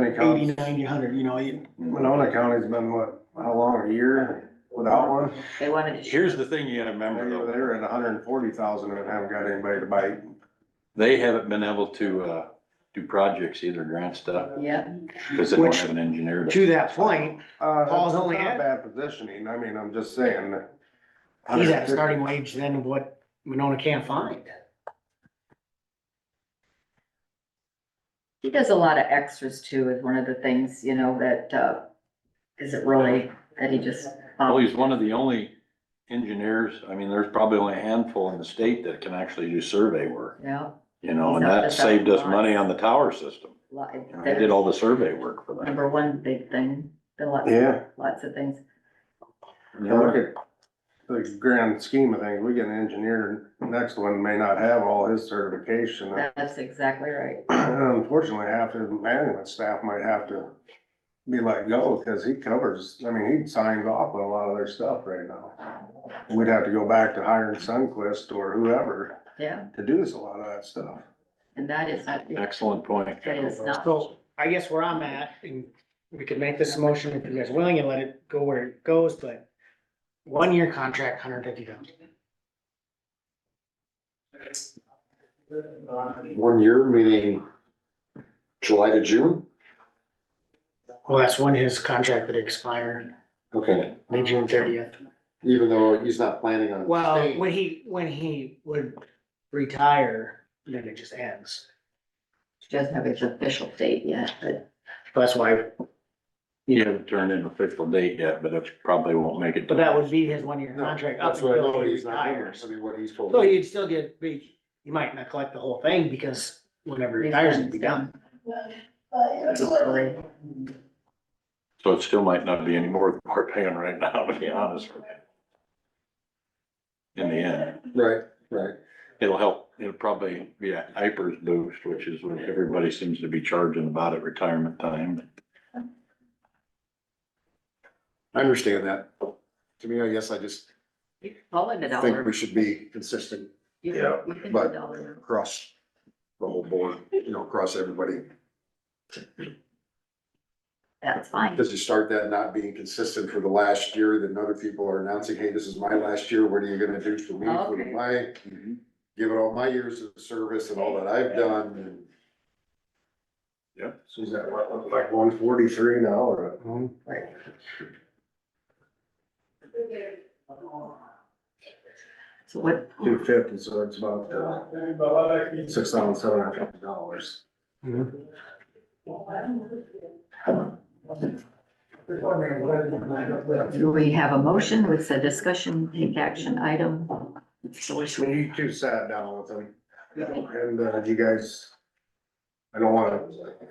many eighty, counties, ninety, hundred, you know, you- Winona County's been what, how long, a year without one? They wanted to. Here's the thing you gotta remember Remember, though, they were at hundred and forty thousand and haven't got anybody to bite. they haven't been able to, uh, do projects either, grant stuff, Yeah, cause they don't Which- have an engineer. to- to that point, Uh, Paul's it's only not had- Bad positioning, I mean, I'm just saying. that he's at a 150 starting wage then of what Winona can't find. he does a lot of extras too, is one of the things, you know, that, uh, isn't really, that he just. Well, he's one of the only engineers, I mean, there's probably only a handful in the state that can actually do survey work, Yeah. you know, He's and not that just a saved us boss. money on the tower system. li- You know, They did that's all the survey work for that. Number one big thing, there are lots, Yeah, lots of things. and look at the grand scheme of things, we get an engineer, next one may not have all his certification. That's exactly right. Unfortunately, half his management staff might have to be let go, cause he covers, I mean, he signs off on a lot of their stuff right now. We'd have to go back to hiring Sunquist or whoever Yeah, to do this, a lot of that stuff. and that is not, Excellent point. that is not. So I guess where I'm at, and we could make this a motion if you guys are willing and let it go where it goes, but one year contract, hundred fifty thousand. One year, meaning July to June? Well, that's when his contract would expire, Okay, May June thirtieth. even though he's not planning on. Well, staying. when he, when he would retire, then it just ends. She doesn't have its official date yet, but That's why, You haven't turned in an official date yet, but it probably won't make it. but that would be his one year No, contract up That's what I until know, he he's not, doing. retires. I mean, what he's told So me. you'd still get, be, you might not collect the whole thing because whenever he retires, it'd be done. early. So it still might not be any more than we're paying right now, to be honest with you. In the end, Right, right. it'll help, it'll probably be a hypers boost, which is what everybody seems to be charging about at retirement time. I understand that. To me, I guess I just You can call it a think dollar. we should be consistent You can- Yeah, you can do but- dollar. across the whole board, you know, across everybody. That's fine. Because you start that not being consistent for the last year, then other people are announcing, hey, this is my last year, what are you gonna do for me, for Okay. my, Mm-hmm. give it all my years of service and all that I've done, and So is that what, look like one forty-three now or? Mm-hmm. So what, Two fifty, so it's about, uh, six thousand seven hundred fifty dollars. do we have a motion? It's a discussion, take action item. So we should- When you two sat down with them, and, uh, you guys, I don't wanna,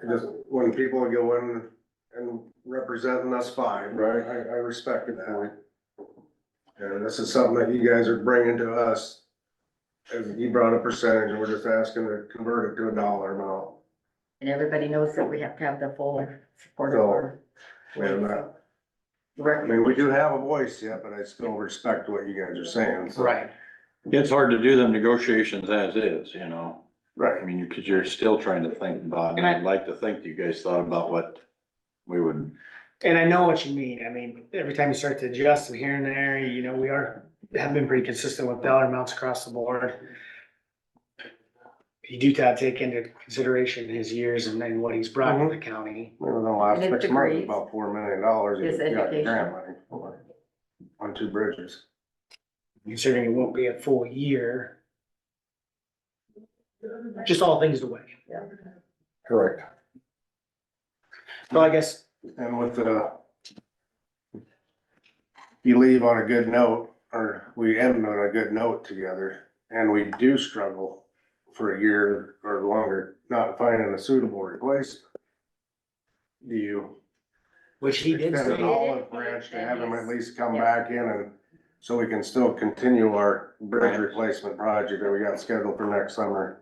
just, when people go in and representing us fine, right, I, I respect that. And this is something that you guys are bringing to us, and you brought a percentage, and we're just asking to convert it to a dollar amount. And everybody knows that we have to have the full support of our. And, uh, I rec- mean, we do have a voice yet, but I still respect what you guys are saying, so. Right. It's hard to do them negotiations as is, you know? Right. I mean, you, cause you're still trying to think about, and I'd like to think you guys thought about what we would And I know what you mean. I mean, every time you start to adjust from here and there, you know, we are, have been pretty consistent with dollar amounts across the board. You do ta- take into consideration his years and then what he's brought Mm-hmm. to the county. We were in the last And his six months, degrees. about four million dollars. His education. On two bridges. Considering it won't be a full year. Just all things away. Correct. So I guess And with the. You leave on a good note, or we end on a good note together, and we do struggle for a year or longer, not finding a suitable replacement. Do you Which he did extend an say, olive branch to have him at least come back in and, so we can still continue our bridge replacement project that we got scheduled for next summer?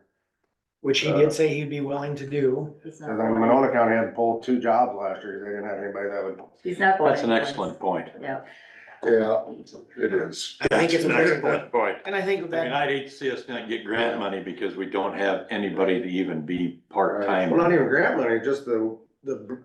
which he did say he'd be willing to do. He's And then not- Monona County had pulled two jobs last year, they didn't have anybody that would. he's not going That's an anywhere. excellent point. Yeah, Yeah, it is. I think it's a That's an very excellent point. And I think I mean, that, I'd hate to see us not get grant money because we don't have anybody to even be part-time. Well, not even grant money, just the the